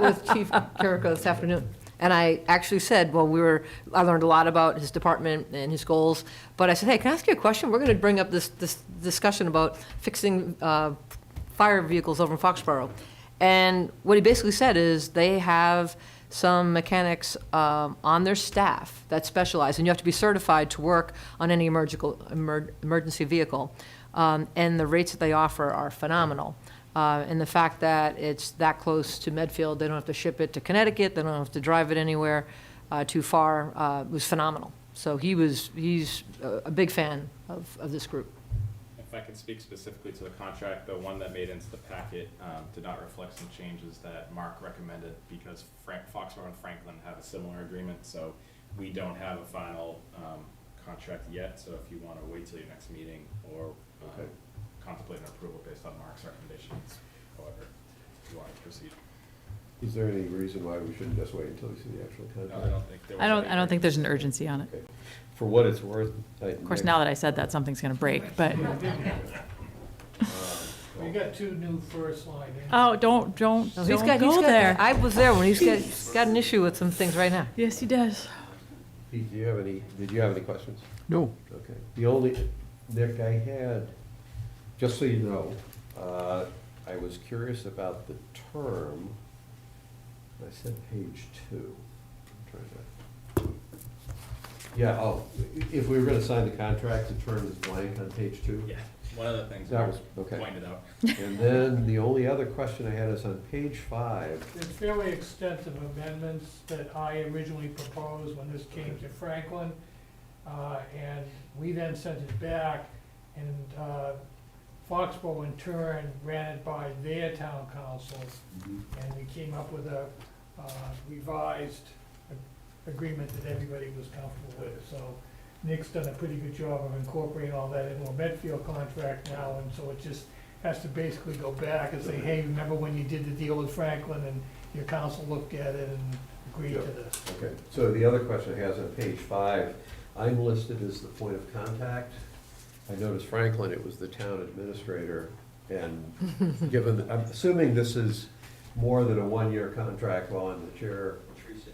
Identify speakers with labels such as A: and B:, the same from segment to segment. A: with Chief Carrico this afternoon, and I actually said, well, we were, I learned a lot about his department and his goals, but I said, hey, can I ask you a question? We're going to bring up this, this discussion about fixing uh, fire vehicles over in Foxborough. And what he basically said is, they have some mechanics um, on their staff that specialize, and you have to be certified to work on any emergical- emer- emergency vehicle. Um, And the rates that they offer are phenomenal. Uh, And the fact that it's that close to Medfield, they don't have to ship it to Connecticut, they don't have to drive it anywhere uh, too far, uh, was phenomenal. So he was, he's a a big fan of, of this group.
B: If I could speak specifically to the contract, the one that made into the packet um, did not reflect some changes that Mark recommended because Frank, Foxborough and Franklin have a similar agreement, so we don't have a final um, contract yet, so if you want to wait till your next meeting or um,
C: Okay.
B: contemplate an approval based on Mark's recommendations, however you want to proceed.
C: Is there any reason why we shouldn't just wait until we see the actual
B: No, I
C: contract?
B: don't think there was.
D: I don't,
B: any
D: I don't think there's an
B: agreement.
D: urgency on it.
C: Okay. For what it's worth.
D: Of course, now that I said that, something's going to break, but,
E: We got two new first line. in.
D: oh, don't, don't,
A: No, he's got-
D: don't
A: he's
D: go
A: got-
D: there.
A: I was there when he's got, he's got an issue with some things right now.
D: Yes, he does.
C: Pete, do you have any, did you have any questions?
F: No.
C: Okay. The only, Nick, I had, just so you know, uh, I was curious about the term. I said page two. I'm trying to- Yeah, oh, i- if we were gonna sign the contract, the term is blank on page two.
B: Yeah, one of the things
C: That
B: Mark
C: was- okay.
B: pointed out.
C: And then the only other question I had is on page five.
E: There's fairly extensive amendments that I originally proposed when this came to Franklin. uh, And we then sent it back, and uh, Foxborough in turn ran it by their town council.
C: Mm-hmm.
E: And we came up with a uh, revised a- agreement that everybody was comfortable with. So Nick's done a pretty good job of incorporating all that into a Medfield contract now, and so it just has to basically go back and say, hey, remember when you did the deal with Franklin and your council looked at it and agreed to this?
C: Okay, so the other question I have is on page five, I'm listed as the point of contact. I noticed Franklin, it was the town administrator, and given, I'm assuming this is more than a one-year contract while I'm the chair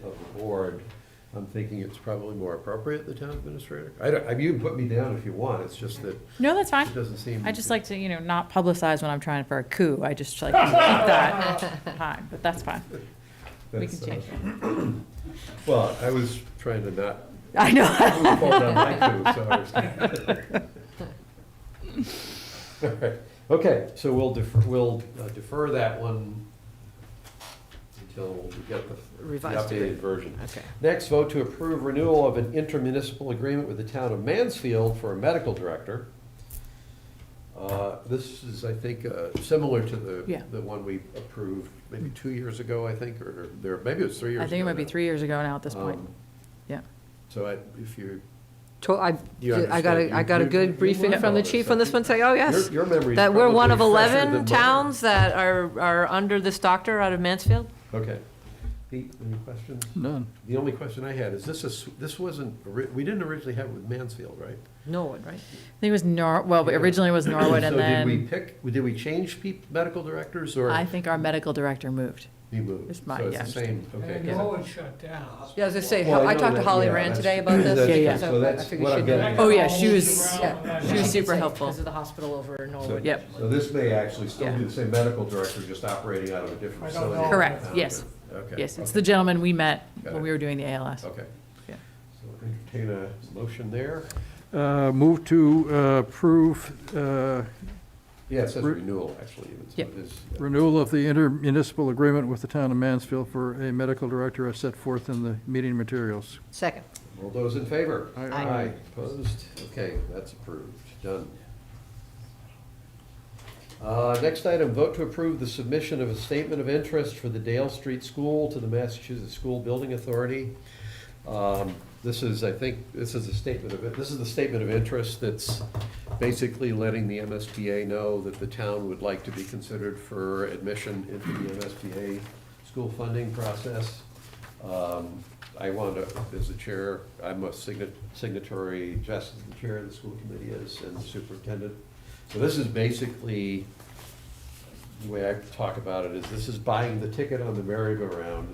C: of the board, I'm thinking it's probably more appropriate, the town administrator. I don't, I mean, you can put me down if you want, it's just that it
D: No, that's fine.
C: doesn't seem.
D: I just like to, you know, not publicize when I'm trying for a coup. I just like to keep that time, but that's fine. We can
C: that's, uh,
D: change.
C: Well, I was trying to not
D: I know.
C: Move forward on my two, so I was- All right. Okay, so we'll defer, we'll uh, defer that one until we get the the
A: Revised
C: updated
A: agreement.
C: version.
A: Okay.
C: Next, vote to approve renewal of an intermunicipal agreement with the town of Mansfield for a medical director. Uh, This is, I think, uh, similar to
D: Yeah.
C: the, the one we approved maybe two years ago, I think, or there, maybe it was three years ago.
D: I think it might be
C: now.
D: three years ago now at this point.
C: Um,
D: Yeah.
C: So I- if you're
A: To- I,
C: You
A: I got
C: understand.
A: a, I got a
C: You- you-
A: good briefing
C: you
A: from the
C: know
A: chief
C: this.
A: on this one, say, oh, yes.
C: Your, your memory is
A: That we're one of
C: probably fresher
A: 11
C: than mine.
A: towns that are, are under this doctor out of Mansfield?
C: Okay. Pete, any questions?
F: None.
C: The only question I had is this is, this wasn't, ori- we didn't originally have it with Mansfield, right?
A: Norwood, right?
D: I think it was Nor, well,
C: Yeah.
D: originally it was Norwood
C: So
D: and
C: did we
D: then
C: pick, did we change peop medical directors
D: I
C: or
D: think our medical director moved.
C: we moved?
D: It's my-
C: So
D: yeah,
C: it's the same, okay.
E: And Norwood shut down.
A: Yeah, I was gonna say,
C: Well,
A: I
C: know
A: talked to
C: that-
A: Holly
C: yeah,
A: Rand
C: that's-
A: today about this.
D: Yeah, yeah.
C: So that's
A: I figured
C: what I'm
A: she'd
C: getting
A: know.
D: Oh, yeah, she was-
A: Yeah.
D: she was
A: She's
D: super
A: like,
D: helpful.
A: Because of the hospital over in
C: So-
A: Norwood.
D: Yep.
C: So this may actually still be
D: Yeah.
C: the same medical director, just operating out of a different
E: I don't
C: facility.
E: know.
D: Correct,
C: Okay.
D: yes.
C: Okay.
D: Yes, it's the gentleman we met when we were doing the ALS.
C: Okay.
D: Yeah.
C: So entertain a motion there.
F: Uh, Move to uh, approve uh,
C: Yeah, it says
F: Re-
C: renewal, actually, even, so
D: Yeah.
C: it is.
F: renewal of the intermunicipal agreement with the town of Mansfield for a medical director as set forth in the meeting materials.
A: Second.
C: All those in favor?
F: Aye. Aye.
C: Aye, opposed? Okay, that's approved, done. Uh, Next item, vote to approve the submission of a statement of interest for the Dale Street School to the Massachusetts School Building Authority. Um, This is, I think, this is a statement of, this is the statement of interest that's basically letting the MSBA know that the town would like to be considered for admission into the MSBA school funding process. Um, I want to, as the chair, I'm a signa- signatory, Jess is the chair of the school committee is, and the superintendent. So this is basically the way I talk about it is this is buying the ticket on the merry-go-round